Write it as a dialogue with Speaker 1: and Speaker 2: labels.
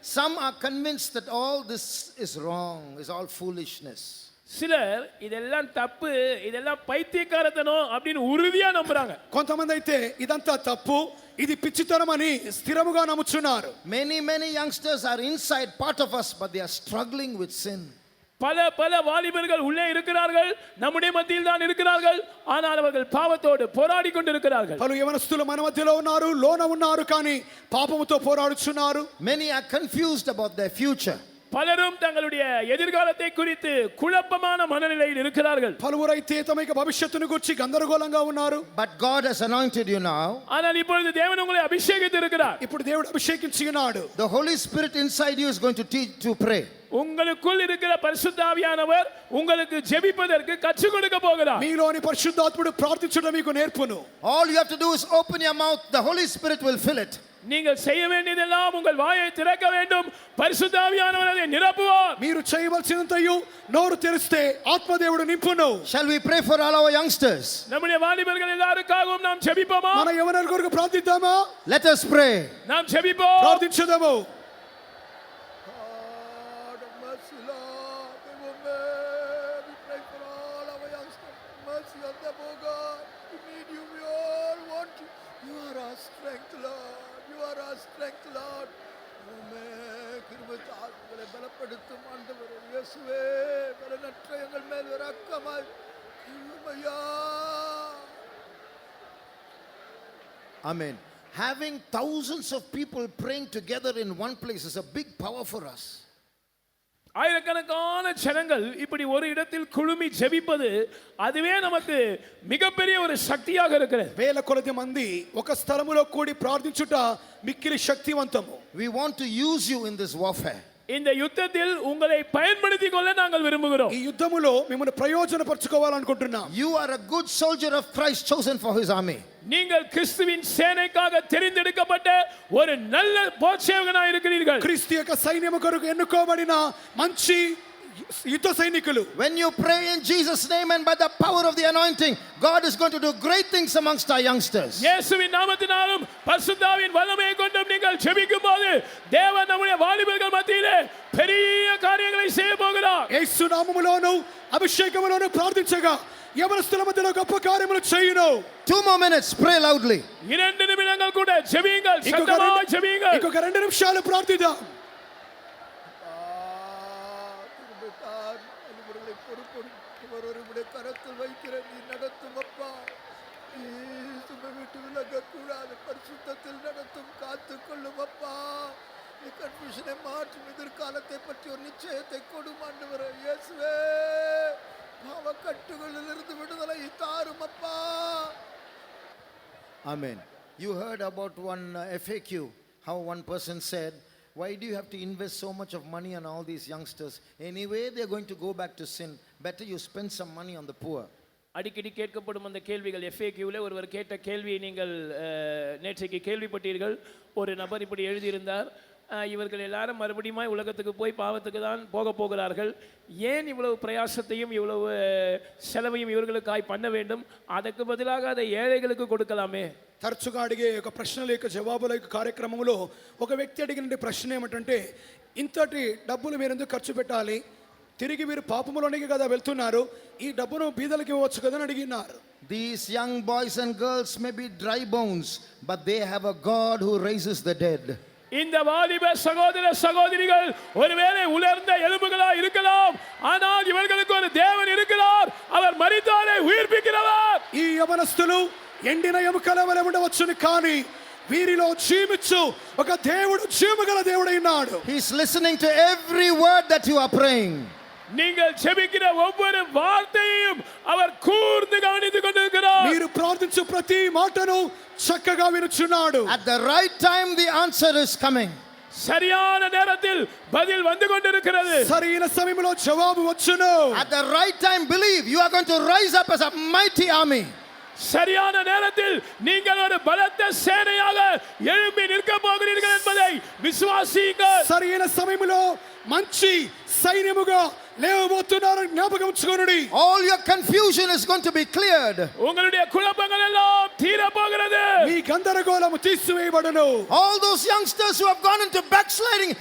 Speaker 1: Some are convinced that all this is wrong, is all foolishness.
Speaker 2: సిలర్ ఇదెల్లం తప్పు ఇదెల్లం పైత్యకారతనం అప్పుడు ఉరుదియా నమ్ముறாங்க
Speaker 3: కొంతమంది అయితే ఇదంతా తప్పు ఇది పిచ్చితనం అని స్థిరముగా నమ్ముచున్నారు
Speaker 1: Many, many youngsters are inside part of us, but they are struggling with sin.
Speaker 2: பல பல வாலிபர்கள் உள்ளே இருக்கிறார்கள் நம்முடைய மத்தியில் தான் இருக்கிறார்கள் ஆனால் அவர்கள் பாவத்தோடு போராடி கொண்டிருக்கிறார்கள்
Speaker 3: పలు యవనస్తులు మన మధ్యలో ఉన్నారు లోన ఉన్నారు కానీ పాపముతో పోరాడుచున్నారు
Speaker 1: Many are confused about their future.
Speaker 2: பலரும் தங்களுடைய எதிர்காலத்தை குறித்து குழப்பமான மனநிலையில் இருக்கிறார்கள்
Speaker 3: పలువురైతే తమ యొక్క భవిష్యత్తును గురించి గందరగోళంగా ఉన్నారు
Speaker 1: But God has anointed you now.
Speaker 2: ஆனால் இப்பொழுது தேவன் உங்களை அபிஷேகித்து இருக்கிறார்
Speaker 3: ఇప్పుడు దేవుడు అభిషేకించి ఉన్నాడు
Speaker 1: The Holy Spirit inside you is going to teach to pray.
Speaker 2: உங்களுக்குள் இருக்கிற பரிசுத்தாவியானவர் உங்களுக்கு ஜெபிப்பதற்கு கற்றுக் கொடுக்க போகிறார்
Speaker 3: మీలోని పరిశుద్ధాత్ముడు ప్రార్థించడం మీకు నేర్పును
Speaker 1: All you have to do is open your mouth, the Holy Spirit will fill it.
Speaker 2: நீங்கள் செய்ய வேண்டியதெல்லாம் உங்கள் வாயை திறக்க வேண்டும் பரிசுத்தாவியானவர் அதை நிரப்புவார்
Speaker 3: మీరు చేయవలసినంతయు నోరు తెరిస్తే ఆత్మదేవుడు నింపును
Speaker 1: Shall we pray for all our youngsters?
Speaker 2: நம்முடைய வாலிபர்கள் எல்லாருக்காகவும் நாம் ஜெபிப்போமா
Speaker 3: మన యవనల కొరకు ప్రార్థిద్దామా
Speaker 1: Let us pray.
Speaker 2: நாம் ஜெபிப்போம்
Speaker 3: ప్రార్థించదాము
Speaker 4: God of mercy, Lord, they were made. We pray for all our youngsters. Mercy on them, O God. We need you. We all want you. You are our strength, Lord. You are our strength, Lord. உம்மே கிருபைத்த ஆத்மங்களை பலப்படுத்தும் ஆண்டவரே இயேசுவே பலனற்ற எங்கள் மேல் இரக்கமாய் கிருபையா
Speaker 1: Amen. Having thousands of people praying together in one place is a big power for us.
Speaker 2: ஆயிரக்கணக்கான ஜனங்கள் இப்படி ஒரு இடத்தில் குழுமி ஜெபிப்பது அதுவே நமக்கு மிகப்பெரிய ஒரு சக்தியாக இருக்கிறது
Speaker 3: వేల కొలది మంది ఒక స్థలములో కూడి ప్రార్థించుట మిక్కిలి శక్తివంతము
Speaker 1: We want to use you in this warfare.
Speaker 2: இந்த யுத்தத்தில் உங்களை பயன்படுத்திக் கொள்ள நாங்கள் விரும்புகிறோம்
Speaker 3: ఈ యుద్ధములో మిమ్మల్ని ప్రయోజనపరచుకోవాలనుకుంటున్నాం
Speaker 1: You are a good soldier of Christ chosen for his army.
Speaker 2: நீங்கள் கிறிஸ்துவின் சேனைக்காக தெரிந்தெடுக்கப்பட்ட ஒரு நல்ல போட்சேவகனாக இருக்கிறீர்கள்
Speaker 3: క్రీస్తు యొక్క సైన్యము కొరకు ఎన్నుకోబడిన మంచి యుద్ధ సైనికులు
Speaker 1: When you pray in Jesus' name and by the power of the anointing, God is going to do great things amongst our youngsters.
Speaker 2: இயேசுவின் நாமத்தினாலும் பரிசுத்தாவின் வல்லமையை கொண்டும் நீங்கள் ஜெபிக்கும் போது தேவன் நம்முடைய வாலிபர்கள் மத்தியிலே பெரிய காரியங்களை செய்ய போகிறார்
Speaker 3: యేసు నామములోను అభిషేకములోను ప్రార్థించగా యవనస్తుల మధ్యలో గొప్ప కార్యములు చేయును
Speaker 1: Two more minutes, pray loudly.
Speaker 2: இரண்டு நிமிடங்கள் கூட ஜெபியுங்கள்
Speaker 3: ఇంకొక
Speaker 2: சத்தமாக
Speaker 3: రెండు-
Speaker 2: ஜெபியுங்கள்
Speaker 3: ఇంకొక రెండు నిమిషాలు ప్రార్థిద్దాం
Speaker 4: திரும்பிட்டார் அவர்களை பொறுப்பொருட்கு ஒருவருடைய கரத்தில் வைக்கிற நீ நடத்தும் அப்பா நீ சுமை விட்டு விலகக்கூடாது பரிசுத்தத்தில் நடத்தும் காத்துக்கொள்ளும் அப்பா நீ கன்ஃபியூஷனை மாற்றும் எதிர்காலத்தை பற்றி ஒரு நிச்சயத்தை கொடும் ஆண்டவரே இயேசுவே பாவ கட்டுகளிலிருந்து விடுதலை தாரும் அப்பா
Speaker 1: Amen. You heard about one uh, FAQ, how one person said, Why do you have to invest so much of money on all these youngsters? Anyway, they're going to go back to sin. Better you spend some money on the poor.
Speaker 2: அடிக்கடி கேட்கப்படும் அந்த கேள்விகள் FAQ-ல ஒருவர் கேட்ட கேள்வியை நீங்கள் அஹ், நேற்றைக்கு கேள்விப்பட்டீர்கள் ஒரு நபர் இப்படி எழுதியிருந்தார் அஹ், இவர்கள் எல்லாரும் மறுபடியும் உலகத்துக்கு போய் பாவத்துக்கு தான் போக போகிறார்கள் ஏன் இவ்வளவு பிரயாசத்தையும் இவ்வளவு அஹ், செலவையும் இவர்களுக்காய் பண்ண வேண்டும் அதற்கு பதிலாக அதை ஏழைகளுக்கு கொடுக்கலாமே
Speaker 3: తరచుగా అడిగే ఒక ప్రశ్నల యొక్క జవాబుల యొక్క కార్యక్రమంలో ఒక వ్యక్తి అడిగిన ప్రశ్న ఏమిటంటే ఇంతటి డబ్బులు మీరు ఎందుకు ఖర్చు పెట్టాలి తిరిగి మీరు పాపములోనికి కదా వెళ్తున్నారు ఈ డబ్బును బీదలకు ఇవ్వచ్చు కదా అని అడిగినారు
Speaker 1: These young boys and girls may be dry bones, but they have a God who raises the dead.
Speaker 2: இந்த வாலிப சகோதர சகோதரிகள் ஒருவேளை உலர்ந்த எலும்புகளா இருக்கலாம் ஆனால் இவர்களுக்கு ஒரு தேவன் இருக்கிறார் அவர் மரித்தாரை உயிர்ப்பிக்கிறவர்
Speaker 3: ఈ యవనస్తులు ఎండిన ఎముకల వలె ఉండవచ్చును కానీ వీరిలో జీవించు ఒక దేవుడు జీవగల దేవుడైనాడు
Speaker 1: He's listening to every word that you are praying.
Speaker 2: நீங்கள் செபிக்கிற ஒவ்வொரு வார்த்தையையும் அவர் கூர்ந்து கவனித்துக் கொண்டிருக்கிறார்
Speaker 3: మీరు ప్రార్థించు ప్రతి మాటను చక్కగా వినుచున్నాడు
Speaker 1: At the right time, the answer is coming.
Speaker 2: சரியான நேரத்தில் பதில் வந்து கொண்டிருக்கிறது
Speaker 3: సరైన సమయంలో జవాబు వచ్చును
Speaker 1: At the right time, believe you are going to rise up as a mighty army.
Speaker 2: சரியான நேரத்தில் நீங்கள் ஒரு பலத்த சேனையாக எழும்பி நிற்க போகிறீர்கள் என்பதை விசுவாசியுங்கள்
Speaker 3: సరైన సమయంలో మంచి సైన్యముగా లేవబోతున్నారు జ్ఞాపకం ఉంచుకోనుడి
Speaker 1: All your confusion is going to be cleared.
Speaker 2: உங்களுடைய குழப்பங்கள் எல்லாம் தீர போகிறது
Speaker 3: మీ గందరగోళము తీసివేయబడును
Speaker 1: All those youngsters who have gone into backsliding,